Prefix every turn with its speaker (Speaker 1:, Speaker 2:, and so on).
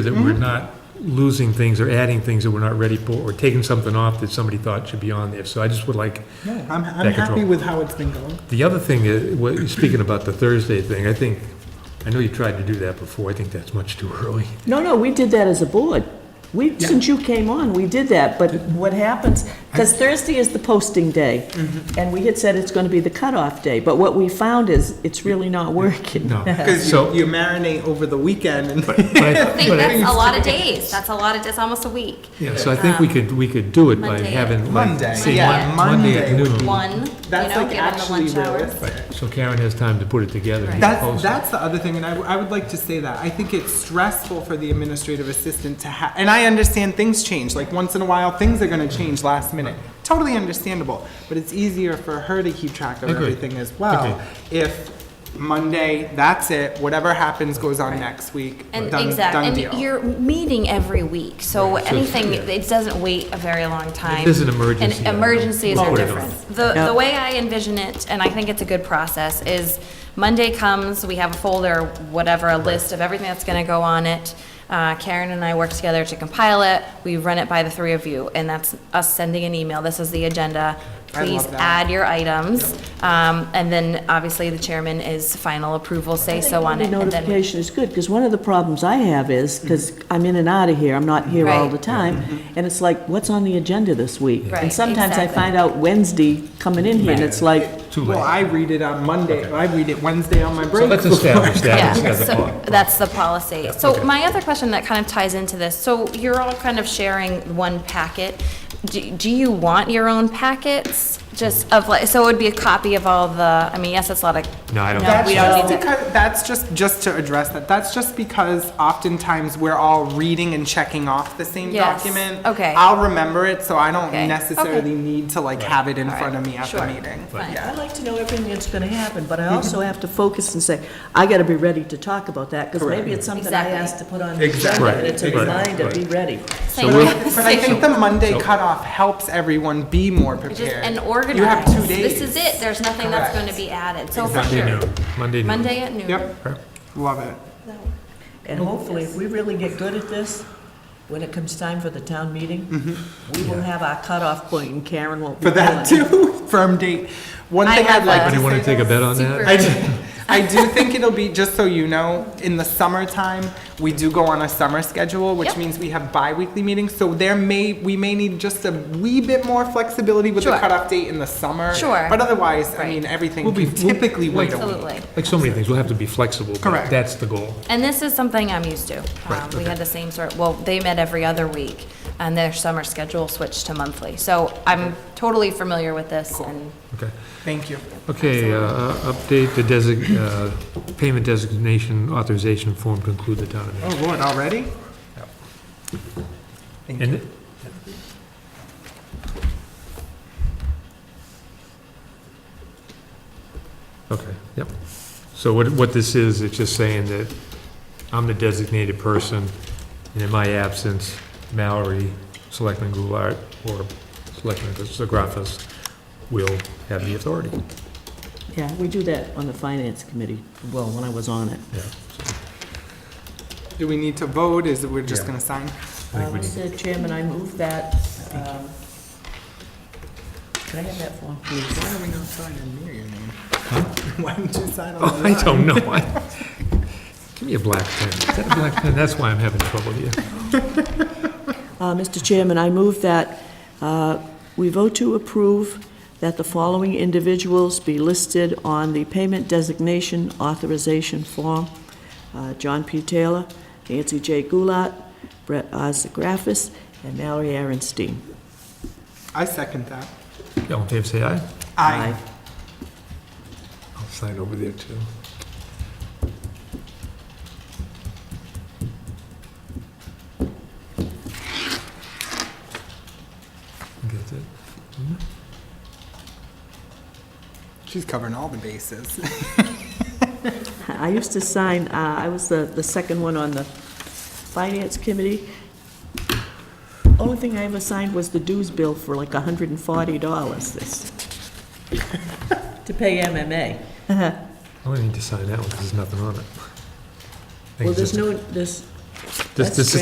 Speaker 1: that we're
Speaker 2: Mm-hmm.
Speaker 1: not losing things or adding things that we're not ready for, or taking something off that somebody thought should be on there. So I just would like,
Speaker 2: No, I'm, I'm
Speaker 1: Back control.
Speaker 2: happy with how it's been going.
Speaker 1: the other thing, is- what- speaking about the Thursday thing, I think, I know you tried to do that before, I think that's much too early.
Speaker 3: No, no, we did that as a board. We, since you came on, we did that, but what happens, because Thursday is the posting day, and we had said it's going to be the cutoff day, but what we found is, it's really not working.
Speaker 1: No.
Speaker 2: Because
Speaker 1: So-
Speaker 2: you, you marinate over the weekend and
Speaker 1: But I-
Speaker 4: I think
Speaker 1: but I-
Speaker 4: that's a lot of days. That's a lot of, that's almost a week.
Speaker 1: Yeah, so I think we could, we could do it by
Speaker 4: Monday.
Speaker 1: having,
Speaker 2: Monday,
Speaker 1: like, say,
Speaker 2: yeah,
Speaker 1: Mon- Monday at
Speaker 2: Monday would
Speaker 1: noon.
Speaker 4: One, you
Speaker 2: that's
Speaker 4: know,
Speaker 2: like
Speaker 4: given the
Speaker 2: actually
Speaker 4: lunch hours.
Speaker 2: realistic.
Speaker 1: So Karen has time to put it together. and
Speaker 2: That's,
Speaker 1: post it.
Speaker 2: that's the other thing, and I, w- I would like to say that. I think it's stressful for the administrative assistant to have, and I understand things change, like once in a while, things are gonna change last minute. Totally understandable, but it's easier for her to keep track of
Speaker 1: Agreed.
Speaker 2: everything as well. If Monday, that's it, whatever happens goes on next week,
Speaker 4: And
Speaker 2: done,
Speaker 4: exactly,
Speaker 2: done
Speaker 4: and
Speaker 2: deal.
Speaker 4: you're meeting every week, so
Speaker 1: Right, so it's-
Speaker 4: anything,
Speaker 1: yeah.
Speaker 4: it doesn't wait a very long time.
Speaker 1: there's an emergency,
Speaker 4: And emergencies
Speaker 1: we'll
Speaker 4: are
Speaker 1: put it on.
Speaker 4: different. The,
Speaker 3: Yeah.
Speaker 4: the way I envision it, and I think it's a good process, is Monday comes, we have a folder, whatever, a list of everything that's gonna go on it. Uh, Karen and I work together to compile it, we run it by the three of you, and that's us sending an email, this is the agenda.
Speaker 2: I love
Speaker 4: Please
Speaker 2: that.
Speaker 4: add your items, um, and then obviously the chairman is final approval, say so on
Speaker 3: The
Speaker 4: it. and then we-
Speaker 3: notification is good, because one of the problems I have is, because I'm in and out of here, I'm not here all
Speaker 4: Right.
Speaker 3: the time, and it's like, what's on the agenda this week?
Speaker 4: Right,
Speaker 3: And sometimes I
Speaker 4: exactly.
Speaker 3: find out Wednesday coming in here, and it's like,
Speaker 1: Too
Speaker 2: Well,
Speaker 1: late.
Speaker 2: I read it on Monday, I read it Wednesday on my
Speaker 1: So
Speaker 2: break.
Speaker 1: let's establish
Speaker 4: Yeah,
Speaker 1: that as as a
Speaker 4: so
Speaker 1: part.
Speaker 4: that's the policy. So
Speaker 1: okay.
Speaker 4: my other question that kind of ties into this, so you're all kind of sharing one packet. Do, do you want your own packets? Just of like, so it would be a copy of all the, I mean, yes, it's a lot of.
Speaker 1: No, I don't
Speaker 2: That's
Speaker 4: We don't
Speaker 2: just
Speaker 4: need to.
Speaker 2: because, that's just, just to address that, that's just because oftentimes we're all reading and checking off the same
Speaker 4: Yes,
Speaker 2: document.
Speaker 4: okay.
Speaker 2: I'll remember it, so I don't
Speaker 4: Okay, okay.
Speaker 2: necessarily need to like have it in front of me at the
Speaker 4: sure,
Speaker 2: meeting.
Speaker 4: fine.
Speaker 2: Yeah.
Speaker 3: I like to know everything that's going to happen, but I also have to focus and say, I got to be ready to talk about that, because maybe it's something I
Speaker 4: Exactly.
Speaker 3: asked to put on the agenda,
Speaker 1: Right,
Speaker 3: and it's a
Speaker 1: right,
Speaker 3: reminder,
Speaker 1: right.
Speaker 3: be ready.
Speaker 4: Same
Speaker 1: we'll-
Speaker 4: thing.
Speaker 2: But I think the Monday cutoff helps everyone be more
Speaker 4: Just
Speaker 2: prepared.
Speaker 4: an organized.
Speaker 2: You have two days.
Speaker 4: This is it. There's nothing that's
Speaker 2: Correct.
Speaker 4: going to be added. So for
Speaker 1: Monday
Speaker 4: sure.
Speaker 1: noon, Monday noon.
Speaker 4: Monday at noon.
Speaker 2: Yep, love it.
Speaker 3: And hopefully, if we really get good at this, when it comes time for the town meeting,
Speaker 1: Mm-hmm.
Speaker 3: we will have our cutoff point, and Karen won't be
Speaker 2: For that
Speaker 3: calling.
Speaker 2: too, firm date. One
Speaker 4: I
Speaker 2: thing
Speaker 4: have
Speaker 2: I'd like
Speaker 4: a-
Speaker 2: to
Speaker 1: Anybody want
Speaker 2: say
Speaker 1: to take a
Speaker 2: though-
Speaker 1: bet on that?
Speaker 4: Super.
Speaker 2: I do, I do think it'll be, just so you know, in the summertime, we do go on a summer schedule, which
Speaker 4: Yep.
Speaker 2: means we have bi-weekly meetings, so there may, we may need just a wee bit more flexibility with the
Speaker 4: Sure.
Speaker 2: cutoff date in the summer.
Speaker 4: Sure.
Speaker 2: But otherwise, I
Speaker 4: Right.
Speaker 2: mean, everything
Speaker 1: We'll be-
Speaker 2: can typically wait a week.
Speaker 4: Absolutely.
Speaker 1: Like so many things, we'll have to be flexible. but
Speaker 2: Correct.
Speaker 1: That's the goal.
Speaker 4: And this is something I'm used to. Um, We had the same sort, well, they met every other week, and their summer schedule switched to monthly. So I'm totally familiar with this, and
Speaker 1: Okay.
Speaker 2: Thank you.
Speaker 1: Okay, uh, uh, update the desig, uh, payment designation authorization form to include the town
Speaker 2: Oh,
Speaker 1: administrator.
Speaker 2: Lord, already? Thank you.
Speaker 1: And Okay, yep. So what, what this is, it's just saying that I'm the designated person, and in my absence, Mallory, Selectman Goulart, or Selectman Zagrafas will have the authority.
Speaker 3: Yeah, we do that on the finance committee, well, when I was on it.
Speaker 1: Yeah.
Speaker 2: Do we need to vote? Is it, we're just
Speaker 1: Yeah.
Speaker 2: gonna sign?
Speaker 1: I think we need-
Speaker 3: Uh, Mr. Chairman, I move that, um, can I have that form, please?
Speaker 2: Why are we not signing near your name? Why didn't you sign on
Speaker 1: Oh,
Speaker 2: the
Speaker 1: I
Speaker 2: line?
Speaker 1: don't know. I- Give me a black pen. Is that a black pen? That's why I'm having trouble here.
Speaker 3: Uh, Mr. Chairman, I move that uh, we vote to approve that the following individuals be listed on the payment designation authorization form. Uh, John P. Taylor, Nancy J. Gulat, Brett R. Zagrafis, and Mallory Aaronstein.
Speaker 2: I second that.
Speaker 1: All in favor, say aye.
Speaker 2: Aye.
Speaker 1: I'll sign over there, too. That's it?
Speaker 2: She's covering all the bases.
Speaker 3: I used to sign, uh, I was the, the second one on the finance committee. Only thing I ever signed was the dues bill for like hundred and forty dollars this. To pay MMA.
Speaker 1: I don't need to sign that one because there's nothing on it. I think
Speaker 3: Well,
Speaker 1: it's
Speaker 3: there's
Speaker 1: just-
Speaker 3: no, there's,
Speaker 1: This,
Speaker 3: That's
Speaker 1: this